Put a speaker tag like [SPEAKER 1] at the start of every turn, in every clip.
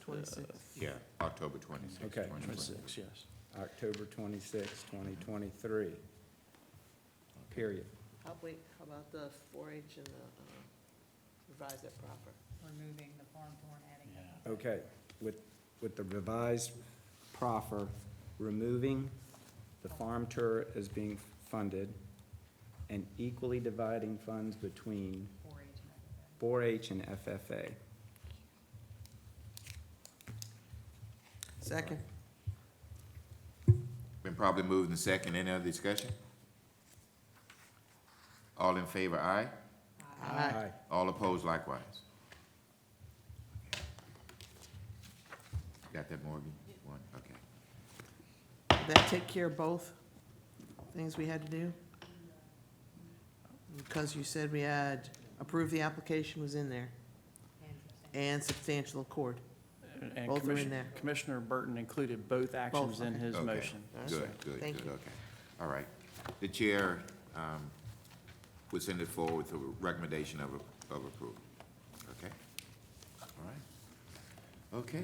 [SPEAKER 1] Twenty-six.
[SPEAKER 2] Yeah, October twenty-sixth.
[SPEAKER 3] Okay,
[SPEAKER 2] 2020.
[SPEAKER 3] twenty-six, yes. October twenty-sixth, twenty twenty-three. Period.
[SPEAKER 1] How, wait, how about the four-H and the, uh, revise that proper?
[SPEAKER 4] removing the farm to and adding.
[SPEAKER 3] Okay, with, with the revised proffer, removing the farm tour as being funded and equally dividing funds between
[SPEAKER 4] Four H and everything.
[SPEAKER 3] 4-H and FFA.
[SPEAKER 1] Second.
[SPEAKER 2] Been probably moved in second. Any other discussion? All in favor, aye.
[SPEAKER 1] Aye.
[SPEAKER 2] All opposed likewise. Got that, Morgan? One, okay.
[SPEAKER 1] Did that take care of both things we had to do? Because you said we had, approved the application was in there,
[SPEAKER 4] And substantial.
[SPEAKER 1] and substantial accord.
[SPEAKER 5] And
[SPEAKER 1] Both are in
[SPEAKER 5] Commissioner-
[SPEAKER 1] there.
[SPEAKER 5] Commissioner Burton included both actions in
[SPEAKER 1] okay.
[SPEAKER 5] his
[SPEAKER 2] Okay.
[SPEAKER 5] motion.
[SPEAKER 2] Good, good,
[SPEAKER 1] Thank
[SPEAKER 2] good,
[SPEAKER 1] you.
[SPEAKER 2] okay. All right. The chair um, will send it forward with a recommendation of a- of approval. Okay? All right. Okay.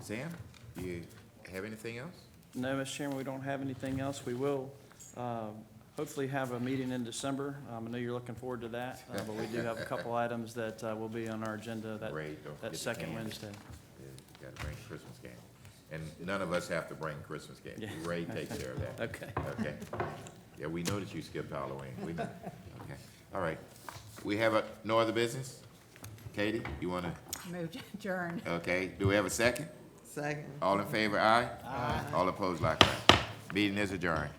[SPEAKER 2] Sam, you have anything else?
[SPEAKER 5] No, Mr. Chairman, we don't have anything else. We will um, hopefully have a meeting in December. Um, I know you're looking forward to that, uh, but we do have a couple items that uh, will be on our agenda that,
[SPEAKER 2] Great, don't forget
[SPEAKER 5] that
[SPEAKER 2] the
[SPEAKER 5] second
[SPEAKER 2] cans.
[SPEAKER 5] Wednesday.
[SPEAKER 2] Got to bring Christmas game. And none of us have to bring Christmas game.
[SPEAKER 5] Yeah.
[SPEAKER 2] Ray takes care of that.
[SPEAKER 5] Okay.
[SPEAKER 2] Okay. Yeah, we know that you skipped Halloween. We, okay. All right. We have a, no other business? Katie, you want to,
[SPEAKER 4] Move to adjourn.
[SPEAKER 2] okay, do we have a second?
[SPEAKER 1] Second.
[SPEAKER 2] All in favor, aye? Aye. All opposed, likewise. Meeting is adjourned.